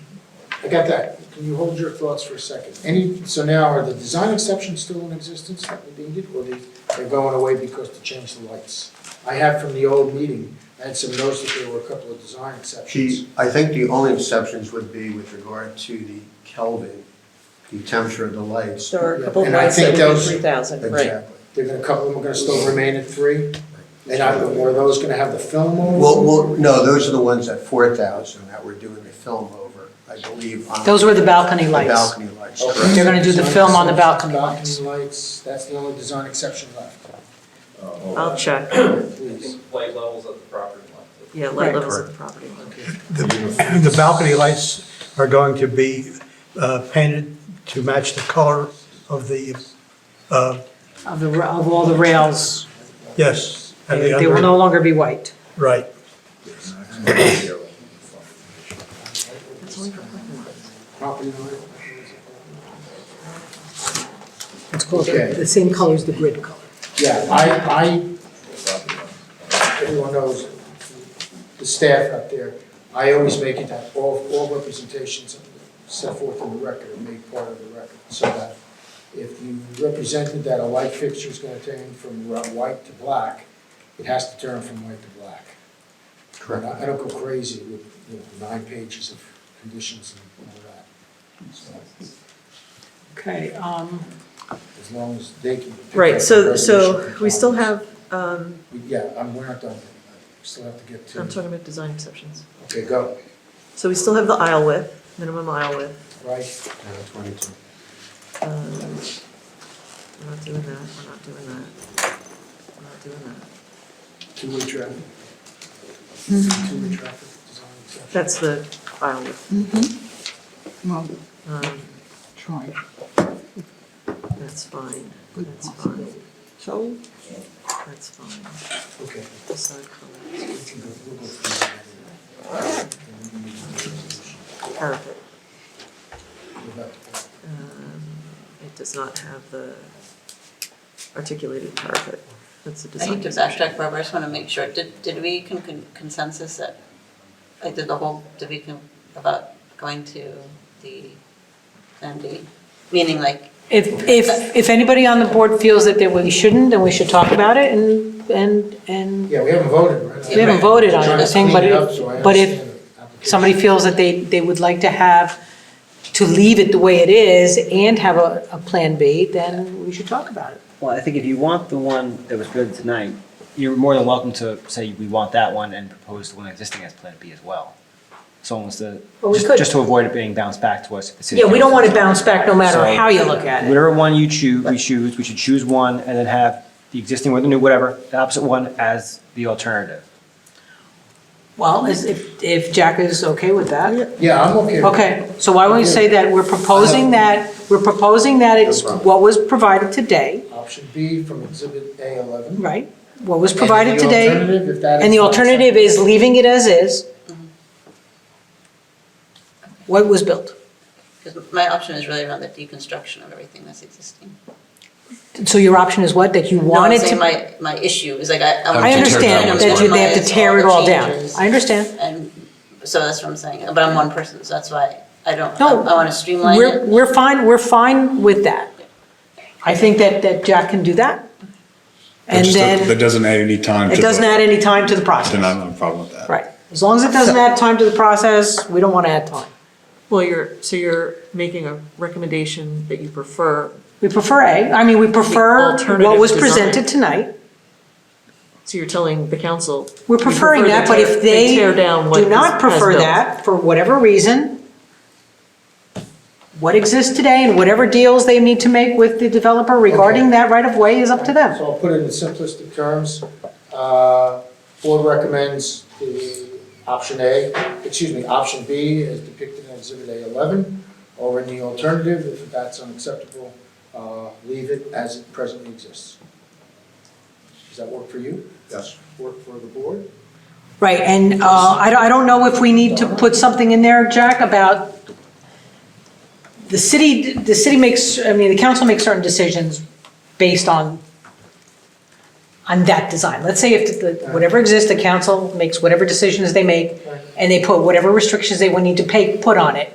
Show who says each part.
Speaker 1: I got that. Can you hold your thoughts for a second? Any, so now, are the design exceptions still in existence that we needed, or they- they're going away because to change the lights? I had from the old meeting, I had some notes that there were a couple of design exceptions.
Speaker 2: She, I think the only exceptions would be with regard to the Kelvin, the temperature of the lights.
Speaker 3: There are a couple of
Speaker 1: And I
Speaker 3: lights
Speaker 1: think
Speaker 3: that would be
Speaker 1: those-
Speaker 3: three thousand, right.
Speaker 2: Exactly.
Speaker 1: They're gonna, a couple of them are gonna still remain at three? And I, are those gonna have the film over?
Speaker 2: Well, well, no, those are the ones at four thousand that we're doing the film over, I believe. on-
Speaker 4: Those were the balcony
Speaker 2: The
Speaker 4: lights.
Speaker 2: balcony lights,
Speaker 1: Okay.
Speaker 2: correct.
Speaker 4: They're gonna do the
Speaker 1: Design
Speaker 4: film on the
Speaker 1: exceptions,
Speaker 4: balcony lights.
Speaker 1: Balcony lights, that's the only design exception left,
Speaker 3: I'll check.
Speaker 1: please.
Speaker 5: Light levels at the property line.
Speaker 3: Yeah, light levels at the property.
Speaker 6: The balcony lights are going to be uh, painted to match the color of the, uh,
Speaker 4: Of the, ra- of all the rails,
Speaker 6: yes, and the
Speaker 4: they will
Speaker 6: under,
Speaker 4: no longer be white.
Speaker 6: right.
Speaker 1: Property line.
Speaker 4: It's
Speaker 1: called the- Okay. the
Speaker 4: same color as the grid color.
Speaker 1: Yeah, I, I everyone knows, the staff up there, I always make it that all, all representations set forth in the record are made part of the record, so that if you represented that a light fixture is gonna turn from ro- white to black, it has to turn from white to black. And
Speaker 2: Correct.
Speaker 1: I I don't go crazy with, you know, nine pages of conditions and all that. So,
Speaker 4: Okay, um,
Speaker 1: As long as they can. pick up
Speaker 3: Right,
Speaker 1: the
Speaker 3: so, so
Speaker 1: resolution
Speaker 3: we still
Speaker 1: compliance.
Speaker 3: have, um,
Speaker 1: We- Yeah, I'm, we're not done, yet. we still have to get
Speaker 3: I'm
Speaker 1: to,
Speaker 3: talking about design exceptions.
Speaker 1: okay, go,
Speaker 3: So we still have the aisle width, minimum aisle width.
Speaker 1: right?
Speaker 2: Uh, Twenty-two.
Speaker 3: Um, We're not doing that, we're not doing that. We're not doing that.
Speaker 1: Two-way traffic.
Speaker 4: Hmm.
Speaker 1: Two-way traffic design exception.
Speaker 3: That's the aisle width.
Speaker 1: Mm-hmm.
Speaker 7: Well,
Speaker 3: Um,
Speaker 7: try.
Speaker 3: That's fine, that's fine,
Speaker 7: So,
Speaker 3: that's fine.
Speaker 1: Okay.
Speaker 3: Design color,
Speaker 1: we can go- we'll go through that anyway.
Speaker 3: parapet.
Speaker 1: We're about to-
Speaker 3: Um, It does not have the articulated parapet. That's a
Speaker 8: I
Speaker 3: design
Speaker 8: need to
Speaker 3: exception.
Speaker 8: backtrack, Barbara, I just want to make sure, did, did we con- con- consensus that, like, did the whole, did we, con- about going to the Plan B? Meaning like,
Speaker 4: if, if, if anybody on the board feels that they, we shouldn't, then we should talk about it and, and, and
Speaker 1: Yeah, we haven't voted, right?
Speaker 8: We haven't
Speaker 4: voted on
Speaker 1: Trying to
Speaker 4: anything,
Speaker 1: clean
Speaker 4: but
Speaker 1: it
Speaker 4: if-
Speaker 1: up so I
Speaker 4: but if
Speaker 1: understand the application.
Speaker 4: somebody feels that they, they would like to have, to leave it the way it is and have a, a plan B, then we should talk about it.
Speaker 9: Well, I think if you want the one that was good tonight, you're more than welcome to say we want that one and propose the one existing as Plan B as well. So almost to,
Speaker 4: Well, we
Speaker 9: just
Speaker 4: could-
Speaker 9: just to avoid it being bounced back to us if the city.
Speaker 4: Yeah, we don't want to
Speaker 9: council-
Speaker 4: bounce back no matter
Speaker 9: So-
Speaker 4: how you look at it.
Speaker 9: Whatever one you choose, we choose, we should choose one and then have the existing or the new, whatever, the opposite one as the alternative.
Speaker 4: Well, is- if, if Jack is okay with that.
Speaker 1: Yeah, I'm okay. with
Speaker 4: Okay, so why don't we say that we're proposing that, we're proposing that it's
Speaker 2: problem.
Speaker 4: what was provided today,
Speaker 1: Option B from exhibit A eleven.
Speaker 4: right? What was
Speaker 1: And
Speaker 4: provided
Speaker 1: the
Speaker 4: today,
Speaker 1: alternative, if that is
Speaker 4: and the
Speaker 1: not
Speaker 4: alternative is leaving it as is. What was built.
Speaker 8: because my option is really around the deconstruction of everything that's existing.
Speaker 4: So your option is what, that you
Speaker 8: No, I'm
Speaker 4: wanted
Speaker 8: saying
Speaker 4: to?
Speaker 8: my, my issue is like, I.
Speaker 4: I understand that you, they have to tear it all down. I understand.
Speaker 8: And, so that's what I'm saying, but I'm one person, so that's why I don't, I
Speaker 4: No,
Speaker 8: want to streamline
Speaker 4: We're,
Speaker 8: it.
Speaker 4: we're fine, we're fine with that. I think that, that Jack can do that. And
Speaker 10: Just that- That
Speaker 4: then,
Speaker 10: doesn't add any time to
Speaker 4: it
Speaker 10: the.
Speaker 4: doesn't add any time to the process.
Speaker 10: Then I don't have a problem with that.
Speaker 4: Right, as long as it doesn't add time to the process, we don't want to add time.
Speaker 3: Well, you're, so you're making a recommendation that you prefer,
Speaker 4: We prefer A, I mean, we prefer what
Speaker 3: Alternative
Speaker 4: was
Speaker 3: design.
Speaker 4: presented tonight.
Speaker 3: so you're telling the council.
Speaker 4: We're
Speaker 3: you
Speaker 4: preferring
Speaker 3: prefer
Speaker 4: that, but
Speaker 3: tear-
Speaker 4: if they
Speaker 3: tear down what
Speaker 4: do not
Speaker 3: is- has
Speaker 4: prefer
Speaker 3: built.
Speaker 4: that, for whatever reason, what exists today and whatever deals they need to make with the developer regarding
Speaker 1: Okay.
Speaker 4: that right-of-way is up to them.
Speaker 1: So I'll put it in simplistic terms. Uh, Board recommends the option A, excuse me, option B as depicted in Exhibit A11, or in the alternative, if that's unacceptable, uh, leave it as it presently exists. Does that work for you?
Speaker 2: Yes.
Speaker 1: Work for the board?
Speaker 4: Right, and uh, I don't- I don't know if we need to put something in there, Jack, about the city, the city makes, I mean, the council makes certain decisions based on, on that design. Let's say if, the whatever exists, the council makes whatever decisions they make, and they put whatever restrictions they would need to pay, put on it.